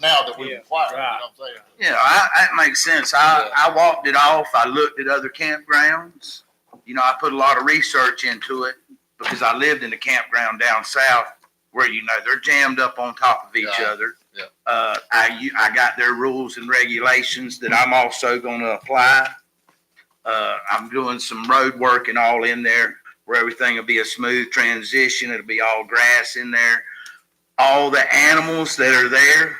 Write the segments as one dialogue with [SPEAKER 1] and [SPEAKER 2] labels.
[SPEAKER 1] now that we
[SPEAKER 2] Yeah,
[SPEAKER 1] require, you know
[SPEAKER 2] right.
[SPEAKER 1] what I'm saying?
[SPEAKER 3] Yeah, I, that makes sense. I, I walked it off. I looked at other campgrounds. You know, I put a lot of research into it because I lived in a campground down south where, you know, they're jammed up on top of each
[SPEAKER 1] Yeah,
[SPEAKER 3] other.
[SPEAKER 1] yeah.
[SPEAKER 3] Uh, I, u- I got their rules and regulations that I'm also gonna apply. Uh, I'm doing some road work and all in there where everything will be a smooth transition. It'll be all grass in there. All the animals that are there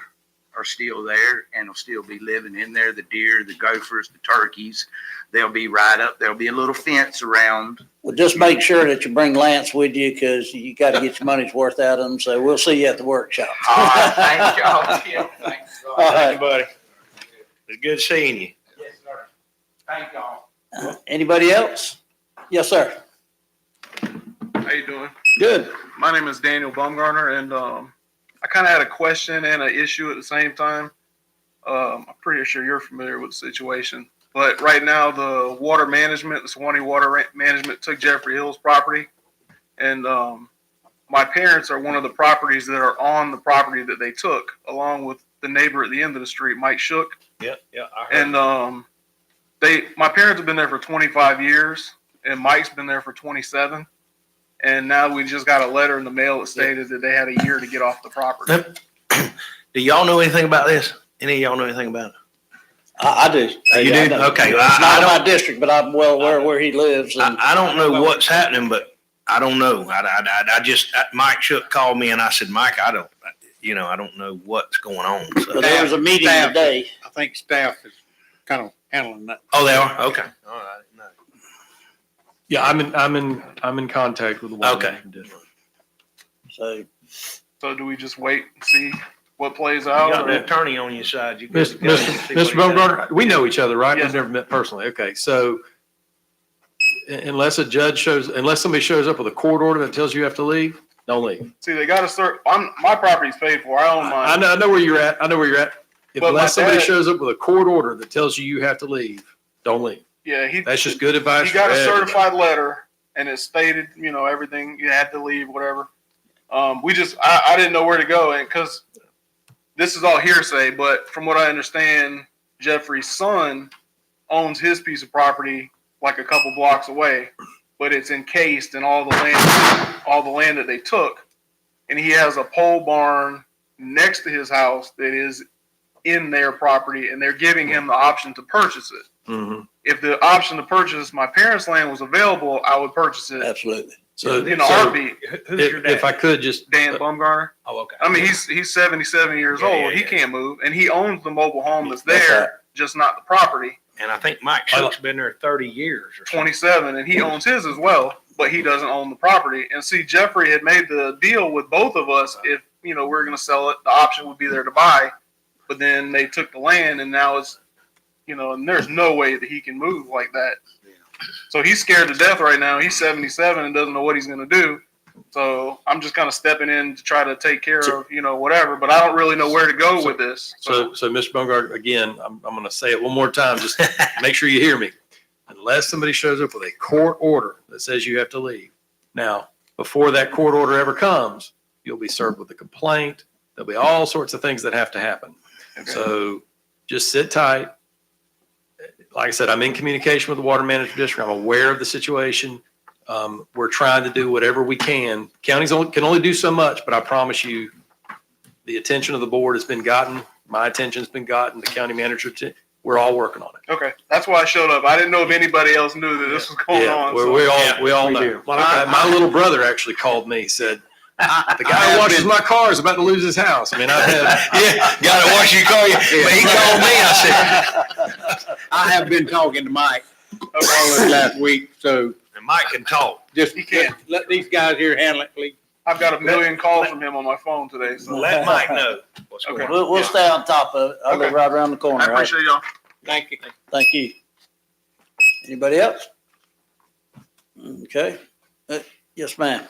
[SPEAKER 3] are still there and will still be living in there. The deer, the gophers, the turkeys, they'll be right up. There'll be a little fence around.
[SPEAKER 4] Well, just make sure that you bring Lance with you because you got to get your money's worth out of him. So we'll see you at the workshop.
[SPEAKER 3] All right, thank y'all. Tim. Thanks,
[SPEAKER 4] All
[SPEAKER 3] y'all.
[SPEAKER 4] right.
[SPEAKER 2] Thank you, buddy. It's good seeing you.
[SPEAKER 3] Yes, sir. Thank y'all.
[SPEAKER 4] Anybody else? Yes, sir.
[SPEAKER 5] How you doing?
[SPEAKER 4] Good.
[SPEAKER 5] My name is Daniel Baumgartner, and um, I kind of had a question and an issue at the same time. Um, I'm pretty sure you're familiar with the situation, but right now the water management, the Swanee Water Ra- Management, took Jeffrey Hill's property, and um, my parents are one of the properties that are on the property that they took, along with the neighbor at the end of the street, Mike Shook.
[SPEAKER 2] Yeah, yeah, I heard.
[SPEAKER 5] And um, they, my parents have been there for 25 years, and Mike's been there for 27. And now we just got a letter in the mail that stated that they had a year to get off the property.
[SPEAKER 2] Do y'all know anything about this? Any of y'all know anything about it?
[SPEAKER 4] I, I do.
[SPEAKER 2] You do?
[SPEAKER 4] I know.
[SPEAKER 2] Okay, well,
[SPEAKER 4] It's
[SPEAKER 2] I-
[SPEAKER 4] not
[SPEAKER 2] I
[SPEAKER 4] in my district, but I'm well aware where he lives. And
[SPEAKER 2] I, I don't know what's happening, but I don't know. I, I, I- I just, Mike Shook called me and I said, Mike, I don't, you know, I don't know what's going on.
[SPEAKER 4] but
[SPEAKER 2] So,
[SPEAKER 4] there was a meeting
[SPEAKER 6] Staff.
[SPEAKER 4] today.
[SPEAKER 6] I think staff is kind of handling that.
[SPEAKER 2] oh, they are? Okay. All right. No.
[SPEAKER 7] Yeah, I'm in, I'm in, I'm in contact with the water
[SPEAKER 2] Okay.
[SPEAKER 7] management district.
[SPEAKER 4] So
[SPEAKER 5] So do we just wait and see what plays
[SPEAKER 2] You
[SPEAKER 5] out?
[SPEAKER 2] got an
[SPEAKER 5] or-
[SPEAKER 2] attorney on your side. You
[SPEAKER 7] Mr.
[SPEAKER 2] can-
[SPEAKER 7] Mr. Mr. Bumgarner, we know each other, right? We've
[SPEAKER 5] Yes.
[SPEAKER 7] never met personally. Okay, so un- unless a judge shows, unless somebody shows up with a court order that tells you have to leave, don't leave.
[SPEAKER 5] See, they got to start, I'm, my property's paid for, I own
[SPEAKER 7] I I
[SPEAKER 5] mine.
[SPEAKER 7] know, I know where you're at. I know where you're at. If
[SPEAKER 5] But my
[SPEAKER 7] Unless somebody
[SPEAKER 5] dad-
[SPEAKER 7] shows up with a court order that tells you you have to leave, don't leave.
[SPEAKER 5] Yeah, he,
[SPEAKER 7] That's just good advice.
[SPEAKER 5] he got
[SPEAKER 7] for
[SPEAKER 5] a
[SPEAKER 7] everybody.
[SPEAKER 5] certified letter and it stated, you know, everything, you had to leave, whatever. Um, we just, I, I didn't know where to go and because this is all hearsay, but from what I understand, Jeffrey's son owns his piece of property like a couple blocks away, but it's encased in all the land, all the land that they took. And he has a pole barn next to his house that is in their property and they're giving him the option to purchase it
[SPEAKER 2] Mm-hmm.
[SPEAKER 7] Mhm.
[SPEAKER 5] if the option to purchase my parents' land was available, I would purchase it
[SPEAKER 4] Absolutely.
[SPEAKER 7] So,
[SPEAKER 5] in a
[SPEAKER 7] so
[SPEAKER 5] heartbeat.
[SPEAKER 7] if, if I could just,
[SPEAKER 5] Dan Bumgarner.
[SPEAKER 2] Oh, okay.
[SPEAKER 5] I mean, he's he's seventy seven years
[SPEAKER 2] Yeah,
[SPEAKER 5] old.
[SPEAKER 2] yeah,
[SPEAKER 5] he
[SPEAKER 2] yeah.
[SPEAKER 5] can't move, and he owns the mobile home that's
[SPEAKER 4] That's
[SPEAKER 5] there,
[SPEAKER 4] right.
[SPEAKER 5] just not the property.
[SPEAKER 2] And I think Mike Shook's been there thirty years or something.
[SPEAKER 5] Twenty seven,
[SPEAKER 7] Hmm.
[SPEAKER 5] and he owns his as well, but he doesn't own the property. And see, Jeffrey had made the deal with both of us. If you know we're going to sell it, the option would be there to buy, but then they took the land, and now it's you know, and there's no way that he can move like that. So he's scared to death right now. He's 77 and doesn't know what he's going to do. So I'm just kind of stepping in to try to take care
[SPEAKER 7] So-
[SPEAKER 5] of, you know, whatever, but I don't really know where to go with this.
[SPEAKER 7] so, so Mr. Bumgarner, again, I'm, I'm going to say it one more time, just make sure you hear me. Unless somebody shows up with a court order that says you have to leave. Now, before that court order ever comes, you'll be served with a complaint. There'll be all sorts of things that have to happen. So just sit tight. Like I said, I'm in communication with the Water Management District. I'm aware of the situation. Um, we're trying to do whatever we can. Counties only, can only do so much, but I promise you, the attention of the board has been gotten. My attention's been gotten, the county manager, t- we're all working on it.
[SPEAKER 5] okay. That's why I showed up. I didn't know if anybody else knew that this was going
[SPEAKER 7] Yeah,
[SPEAKER 5] on.
[SPEAKER 7] we,
[SPEAKER 5] so-
[SPEAKER 7] we all, we all
[SPEAKER 6] We
[SPEAKER 7] know.
[SPEAKER 6] do.
[SPEAKER 7] My, my little brother actually called me, said, the guy
[SPEAKER 6] have
[SPEAKER 7] who washes
[SPEAKER 6] been-
[SPEAKER 7] my car is about to lose his house. I mean, I've had,
[SPEAKER 2] Yeah, gotta watch you call you. But he called me, I said,
[SPEAKER 6] I have been talking to Mike all
[SPEAKER 5] Okay.
[SPEAKER 6] this last week, so
[SPEAKER 2] and Mike can talk.
[SPEAKER 6] just
[SPEAKER 5] He can't.
[SPEAKER 6] let these guys here handle it, please.
[SPEAKER 5] I've got a million calls from him on my phone today. So
[SPEAKER 2] Let Mike know what's going
[SPEAKER 5] Okay.
[SPEAKER 2] on.
[SPEAKER 4] We'll, we'll stay on top of it. I'll live
[SPEAKER 5] Okay.
[SPEAKER 4] right around the corner.
[SPEAKER 5] I
[SPEAKER 4] all right?
[SPEAKER 5] appreciate y'all.
[SPEAKER 6] Thank you.
[SPEAKER 4] Thank you. Anybody else? Okay. Uh, Yes, ma'am.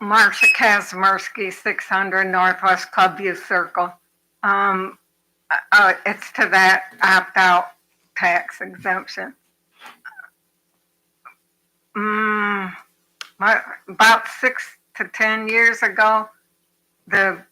[SPEAKER 8] Marcia Kazmersky, 600 Northwest Clubview Circle. Um, uh, uh, it's to that opt-out tax exemption. Mm, my- about six to 10 years ago, the